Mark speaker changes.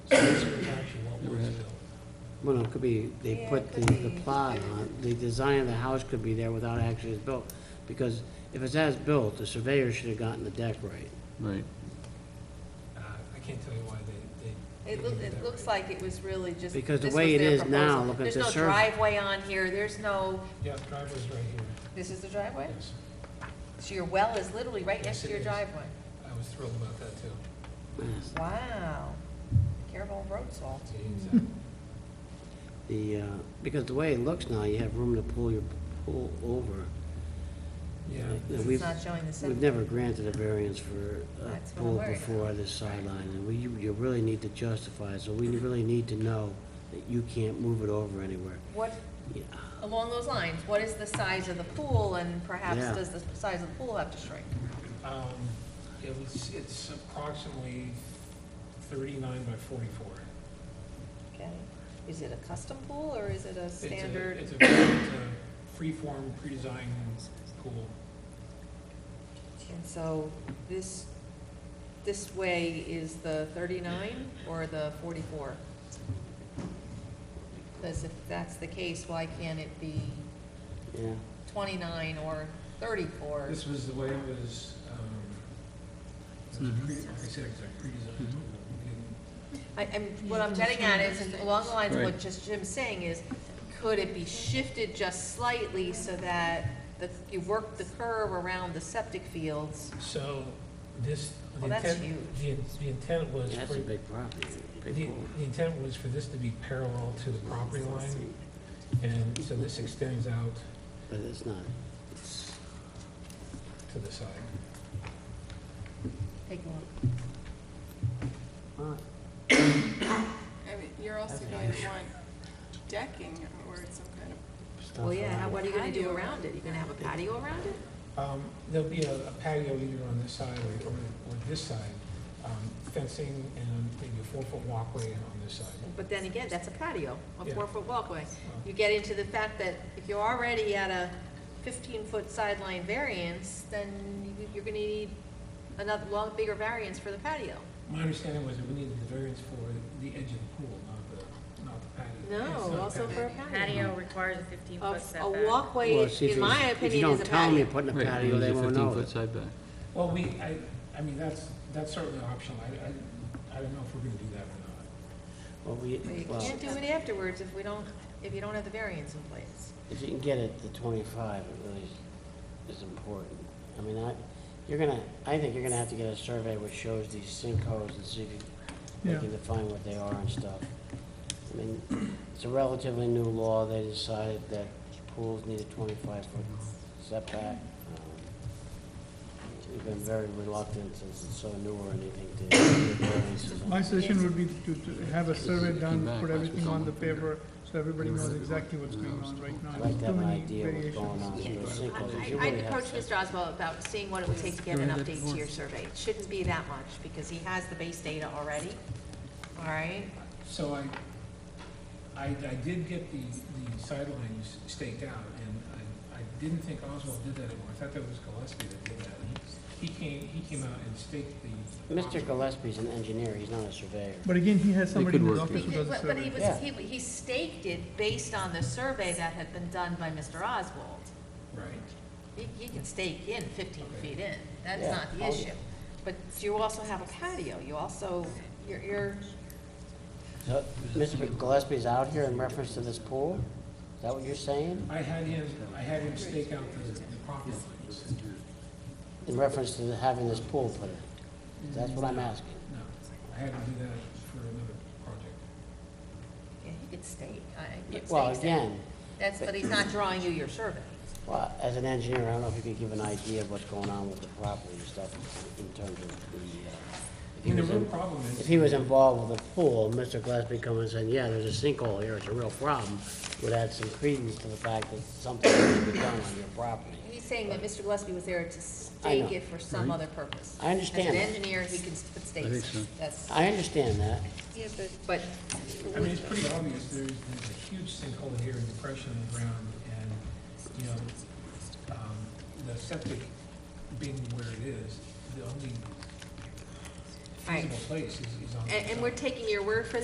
Speaker 1: Well, no, it could be, they
Speaker 2: Yeah,
Speaker 1: put
Speaker 2: it
Speaker 1: the,
Speaker 2: could
Speaker 1: the
Speaker 2: be.
Speaker 1: plot on, the design of the house could be there without actually it's built. Because if it's as built, the surveyor should have gotten the deck right.
Speaker 3: Right.
Speaker 4: Uh, I can't tell you why they, they.
Speaker 2: It
Speaker 4: they
Speaker 2: looks,
Speaker 4: did
Speaker 2: it
Speaker 4: that
Speaker 2: looks
Speaker 4: way.
Speaker 2: like it was really just.
Speaker 1: Because the
Speaker 2: this
Speaker 1: way
Speaker 2: was
Speaker 1: it
Speaker 2: their
Speaker 1: is now,
Speaker 2: proposal.
Speaker 1: look at the
Speaker 2: There's no
Speaker 1: survey.
Speaker 2: driveway on here, there's no,
Speaker 4: Yeah, driveway's right here,
Speaker 2: this is the driveway?
Speaker 4: yes.
Speaker 2: So your well is literally right
Speaker 4: Yes,
Speaker 2: next to
Speaker 4: it
Speaker 2: your
Speaker 4: is.
Speaker 2: driveway?
Speaker 4: I was thrilled about that too.
Speaker 1: Yes.
Speaker 2: Wow. Careful of road salt.
Speaker 4: Exactly.
Speaker 1: The, uh, because the way it looks now, you have room to pull your pool over.
Speaker 4: Yeah,
Speaker 1: Yeah,
Speaker 2: It's
Speaker 1: we've-
Speaker 2: not showing the
Speaker 1: We've
Speaker 2: setback.
Speaker 1: never granted a variance for a
Speaker 2: That's what I'm
Speaker 1: pool
Speaker 2: worried
Speaker 1: before
Speaker 2: about.
Speaker 1: this sideline, and we, you you really need to justify it, so we really need to know that you can't move it over anywhere.
Speaker 2: What,
Speaker 1: Yeah,
Speaker 2: along those lines, what is the size of the pool and perhaps
Speaker 1: Yeah.
Speaker 2: does the size of the pool have to shrink?
Speaker 4: um, it was, it's approximately thirty-nine by forty-four.
Speaker 2: Okay. Is it a custom pool or is it a
Speaker 4: It's a-
Speaker 2: standard?
Speaker 4: It's a, it's a free-form, pre-designed pool.
Speaker 2: And so this, this way is the thirty-nine or the forty-four? Because if that's the case, why can't it be
Speaker 1: yeah.
Speaker 2: twenty-nine or thirty-four?
Speaker 4: This was the way it was, um, it was pre- like I said, it's a pre-designed pool. We didn't-
Speaker 2: I, I'm, what I'm getting at is, and along the lines of what
Speaker 3: Right.
Speaker 2: just Jim's saying is, could it be shifted just slightly so that the, you work the curve around the septic fields?
Speaker 4: So this, the
Speaker 2: Well, that's
Speaker 4: intent,
Speaker 2: huge.
Speaker 4: the in- the intent was
Speaker 1: That's
Speaker 4: for,
Speaker 1: a
Speaker 4: the
Speaker 1: big property, big pool.
Speaker 4: the intent was for this to be parallel to the property line. And so this extends out
Speaker 1: But it's not, it's,
Speaker 4: to the side.
Speaker 2: Take a look.
Speaker 1: not
Speaker 5: I mean, you're also going to want decking or some kind of,
Speaker 1: stuff
Speaker 2: Well, yeah,
Speaker 1: around
Speaker 2: how-
Speaker 1: it.
Speaker 2: what are you gonna do
Speaker 5: Patio.
Speaker 2: around it? You gonna have a patio around it?
Speaker 4: Um, There'll be a a patio either on this side or, or or this side, um, fencing and maybe a four-foot walkway on this side.
Speaker 2: But then again, that's a patio, a
Speaker 4: Yeah.
Speaker 2: four-foot walkway.
Speaker 4: Um,
Speaker 2: You get into the fact that if you're already at a fifteen-foot sideline variance, then you- you're gonna need another, long, bigger variance for the patio.
Speaker 4: My understanding was that we needed the variance for the edge of the pool, not the, not the patio. It's not
Speaker 2: No,
Speaker 4: a
Speaker 2: also for a patio.
Speaker 6: Patio requires a
Speaker 2: A-
Speaker 6: fifteen-foot
Speaker 2: A
Speaker 6: setback.
Speaker 1: Well,
Speaker 2: walkway,
Speaker 1: see, if
Speaker 2: in
Speaker 1: it was-
Speaker 2: my
Speaker 1: If you
Speaker 2: opinion, is a
Speaker 1: don't tell them
Speaker 2: patio.
Speaker 1: you're putting a
Speaker 3: Right,
Speaker 1: patio,
Speaker 3: there's a
Speaker 1: they won't know.
Speaker 3: 15-foot
Speaker 1: it.
Speaker 3: side back.
Speaker 4: Well, we, I, I mean, that's, that's certainly optional. I, I, I don't know if we're gonna do that or not.
Speaker 1: Well, we,
Speaker 2: But you
Speaker 1: well,
Speaker 2: can't do it afterwards if we don't, if you don't have the variance in place.
Speaker 1: if you can get it to twenty-five, it really is, is important. I mean, I, you're gonna, I think you're gonna have to get a survey which shows these sinkholes and see if you, you
Speaker 4: Yeah.
Speaker 1: can define what they are and stuff. I mean, it's a relatively new law, they decided that pools need a twenty-five foot setback. Um, We've been very reluctant since it's so new or anything to give variances on
Speaker 7: My suggestion would be to to have a survey done, put everything on the paper, so everybody knows exactly what's going on right now.
Speaker 1: I like to
Speaker 7: Too
Speaker 1: have an
Speaker 7: many
Speaker 1: idea what's
Speaker 7: variations.
Speaker 1: going on in those sinkholes.
Speaker 2: I-
Speaker 1: You
Speaker 2: I- I'd
Speaker 1: really have
Speaker 2: approach
Speaker 1: to-
Speaker 2: Mr. Oswald about seeing what it would take to get an update to your survey. It shouldn't be that much, because he has the base data already, all right?
Speaker 4: So I, I, I did get the, the sidelines staked out, and I, I didn't think Oswald did that anymore. I thought that was Gillespie that did that. He came, he came out and staked the.
Speaker 1: Mr. Gillespie's an engineer, he's not a surveyor.
Speaker 7: But again, he has somebody
Speaker 3: could
Speaker 7: in his
Speaker 3: work
Speaker 7: office
Speaker 3: it.
Speaker 7: who does the
Speaker 2: But but he
Speaker 7: survey.
Speaker 2: was,
Speaker 1: Yeah.
Speaker 2: he, he staked it based on the survey that had been done by Mr. Oswald.
Speaker 4: Right.
Speaker 2: You, you can stake in fifteen feet in, that's
Speaker 1: Yeah.
Speaker 2: not the issue. But you also have a patio, you also, you're, you're,
Speaker 1: So, Mr. Gillespie's out here in reference to this pool? Is that what you're saying?
Speaker 4: I had him, I had him stake out the, the property lines.
Speaker 1: In reference to the- having this pool put in? That's what I'm asking.
Speaker 4: No, I had him do that for another project.
Speaker 2: yeah, he could stake, I, he could
Speaker 1: Well,
Speaker 2: stake that.
Speaker 1: again,
Speaker 2: That's, but he's not drawing you your survey.
Speaker 1: well, as an engineer, I don't know if you could give an idea of what's going on with the property and stuff in terms of the, uh, if he
Speaker 4: And the
Speaker 1: was
Speaker 4: real
Speaker 1: in-
Speaker 4: problem is.
Speaker 1: if he was involved with the pool, Mr. Gillespie coming and saying, yeah, there's a sinkhole here, it's a real problem, would add some credence to the fact that something needs to be done on your property.
Speaker 2: He's saying that Mr. Gillespie was there to
Speaker 1: I
Speaker 2: stake
Speaker 1: know.
Speaker 2: it for some other purpose.
Speaker 1: I understand
Speaker 2: As an
Speaker 1: that.
Speaker 2: engineer, he can put stakes.
Speaker 3: I think so.
Speaker 2: That's,
Speaker 1: I understand that.
Speaker 5: yeah, but
Speaker 2: but
Speaker 4: I mean, it's pretty obvious, there's, there's a huge sinkhole here and depression in the ground, and, you know, um, the septic being where it is, the only
Speaker 2: Right.
Speaker 4: feasible place is, is on. the
Speaker 2: And, and we're
Speaker 4: side.
Speaker 2: taking your word for